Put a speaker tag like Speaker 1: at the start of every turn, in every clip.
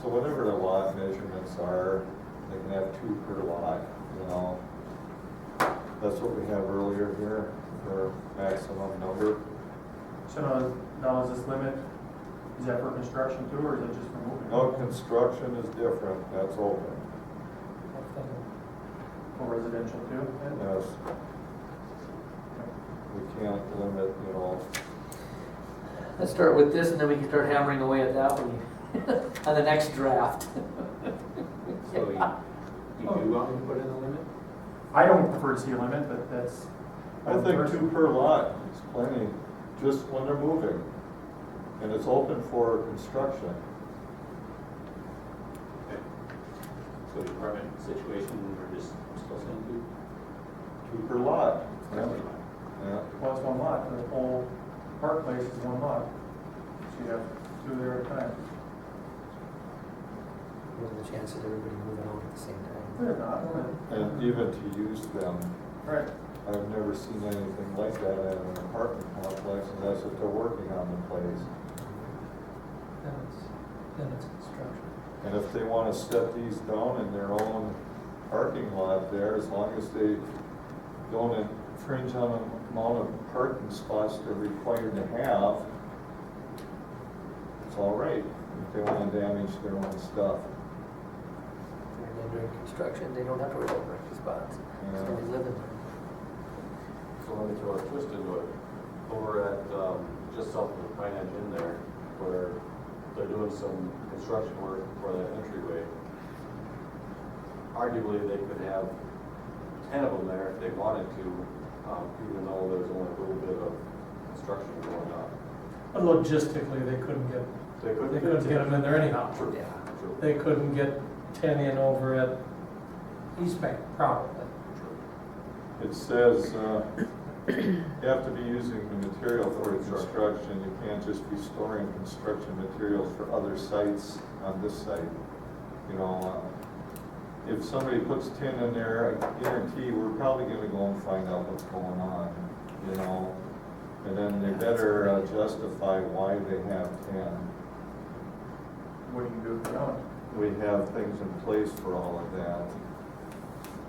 Speaker 1: So whatever the lot measurements are, they can have two per lot, you know? That's what we have earlier here, for maximum number.
Speaker 2: So now, now is this limit, is that for construction too, or is that just for moving?
Speaker 1: No, construction is different, that's open,
Speaker 2: For residential too?
Speaker 1: yes, we can't limit, you know,
Speaker 3: Let's start with this and then we can start hammering away at that one, on the next draft.
Speaker 4: So
Speaker 3: Uh,
Speaker 4: you, you do want me to put in a limit?
Speaker 2: I don't prefer to see a limit, but that's.
Speaker 1: I think two per lot is plenty, just when they're moving. And it's open for construction.
Speaker 4: Okay. So department situation, we're just still saying two?
Speaker 1: Two per lot. Yeah. Yeah.
Speaker 2: Well, it's one lot, the whole park place is one lot, so you have two there at a time.
Speaker 5: What are the chances of everybody moving out at the same time?
Speaker 2: They're not, they're
Speaker 1: And even to use them,
Speaker 2: not. right,
Speaker 1: I've never seen anything like that at an apartment complex, and that's what they're working on the place.
Speaker 5: Then it's, then it's construction.
Speaker 1: And if they wanna set these down in their own parking lot there, as long as they don't infringe on the amount of parking spots they're required to have, it's all right, if they wanna damage their own stuff.
Speaker 5: And then during construction, they don't have to worry about parking spots. It's gonna be living there.
Speaker 6: So let me throw a twist into it. Over at, um, just south of the Pine Edge Inn there, where they're doing some construction work for that entryway. Arguably, they could have ten of them there if they wanted to, um, even though there's only a little bit of construction going on.
Speaker 7: But logistically, they couldn't get,
Speaker 6: They could.
Speaker 7: they couldn't get them in there anyhow.
Speaker 6: True,
Speaker 5: Yeah.
Speaker 6: true,
Speaker 7: They couldn't get ten in over at East Bank, probably.
Speaker 6: true.
Speaker 1: It says, uh, you have to be using the material for construction, you can't just be storing construction materials for other sites on this site. You know, uh, if somebody puts tin in there, I guarantee we're probably gonna go and find out what's going on, you know? And then they better uh, justify why they have tin.
Speaker 2: what do you do if you don't?
Speaker 1: We have things in place for all of that.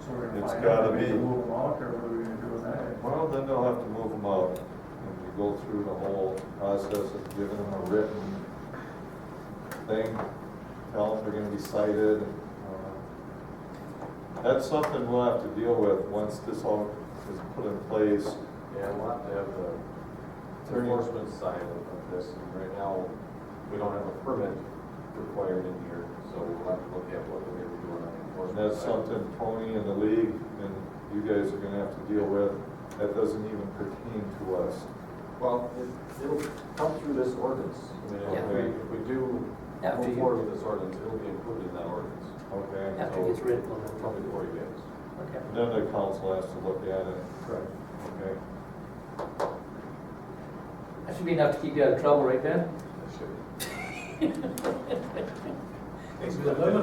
Speaker 2: So we're gonna
Speaker 1: It's
Speaker 2: find
Speaker 1: gotta
Speaker 2: out, maybe
Speaker 1: be.
Speaker 2: move them out, or what are we gonna do with that?
Speaker 1: Well, then they'll have to move them out, and you go through the whole process of giving them a written thing, tell them they're gonna be cited. uh, That's something we'll have to deal with once this all is put in place.
Speaker 6: Yeah, we'll have to have the enforcement side of of this, and right now, we don't have a permit required in here, so we'll have to look at what we're doing on the
Speaker 1: And
Speaker 6: enforcement
Speaker 1: that's
Speaker 6: side.
Speaker 1: something Tony and the league and you guys are gonna have to deal with. That doesn't even pertain to us.
Speaker 6: Well, it- it'll come through this ordinance, I mean, if
Speaker 5: Yeah.
Speaker 6: we, if we do
Speaker 5: After
Speaker 6: move
Speaker 5: you-
Speaker 6: forward with this ordinance, it'll be included in that ordinance,
Speaker 1: Okay?
Speaker 5: After it gets written, we'll have
Speaker 6: probably
Speaker 5: to-
Speaker 6: the forty days.
Speaker 5: okay.
Speaker 1: Then the council has to look at it.
Speaker 6: Right.
Speaker 1: Okay?
Speaker 3: That should be enough to keep you out of trouble, right Ben?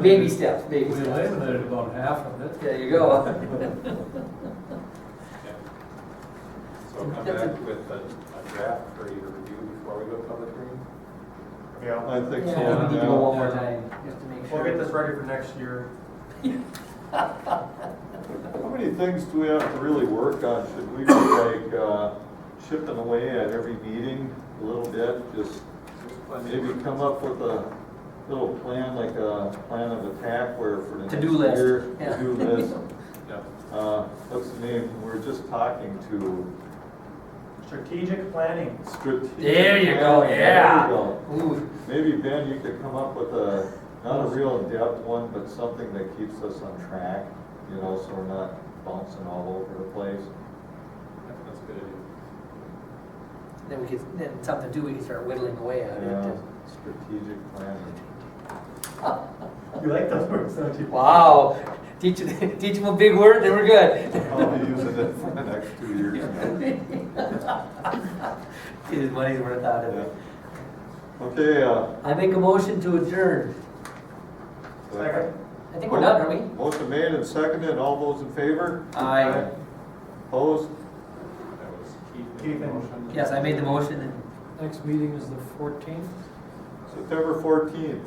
Speaker 3: Baby steps,
Speaker 7: We
Speaker 3: baby steps.
Speaker 7: eliminated about half of it.
Speaker 3: There you go.
Speaker 6: So come
Speaker 3: That's a-
Speaker 6: back with a a draft for you to review before we go public hearing?
Speaker 1: I think so.
Speaker 3: Yeah, we need to go
Speaker 1: yeah.
Speaker 3: one more time, just to make sure.
Speaker 2: We'll get this ready for next year.
Speaker 1: How many things do we have to really work on? Should we be like uh, chipping away at every meeting a little bit? Just maybe come up with a little plan, like a plan of attack where for the
Speaker 3: To-do
Speaker 1: next
Speaker 3: list,
Speaker 1: year.
Speaker 3: yeah.
Speaker 1: To-do list.
Speaker 6: Yeah.
Speaker 1: Uh, What's the name? We We're just talking to
Speaker 2: Strategic planning.
Speaker 1: strategic.
Speaker 3: There you go,
Speaker 1: planning. There you
Speaker 3: yeah.
Speaker 1: go.
Speaker 3: Ooh,
Speaker 1: Maybe Ben, you could come up with a, not a real in-depth one, but something that keeps us on track, you know, so we're not bouncing all over the place.
Speaker 6: That's a good idea.
Speaker 3: then we could, then something to do, we can start whittling away at
Speaker 1: Yeah,
Speaker 3: it.
Speaker 1: strategic planning.
Speaker 2: You like those words, don't you?
Speaker 3: Wow, teach, them- teach them a big word, then we're good.
Speaker 1: I'll be using it for the next two years now.
Speaker 3: Get his money's worth out of
Speaker 1: Yeah.
Speaker 3: it.
Speaker 1: Okay, uh.
Speaker 3: I make a motion to adjourn.
Speaker 2: Second.
Speaker 3: I think we're done, are we?
Speaker 1: Motion made and seconded, all those in favor?
Speaker 3: Aye.
Speaker 1: Opposed?
Speaker 6: That was
Speaker 2: Keith
Speaker 6: Keith
Speaker 2: and-
Speaker 6: and motion.
Speaker 3: Yes, I made the motion and
Speaker 7: Next meeting is the fourteenth.
Speaker 1: September fourteenth.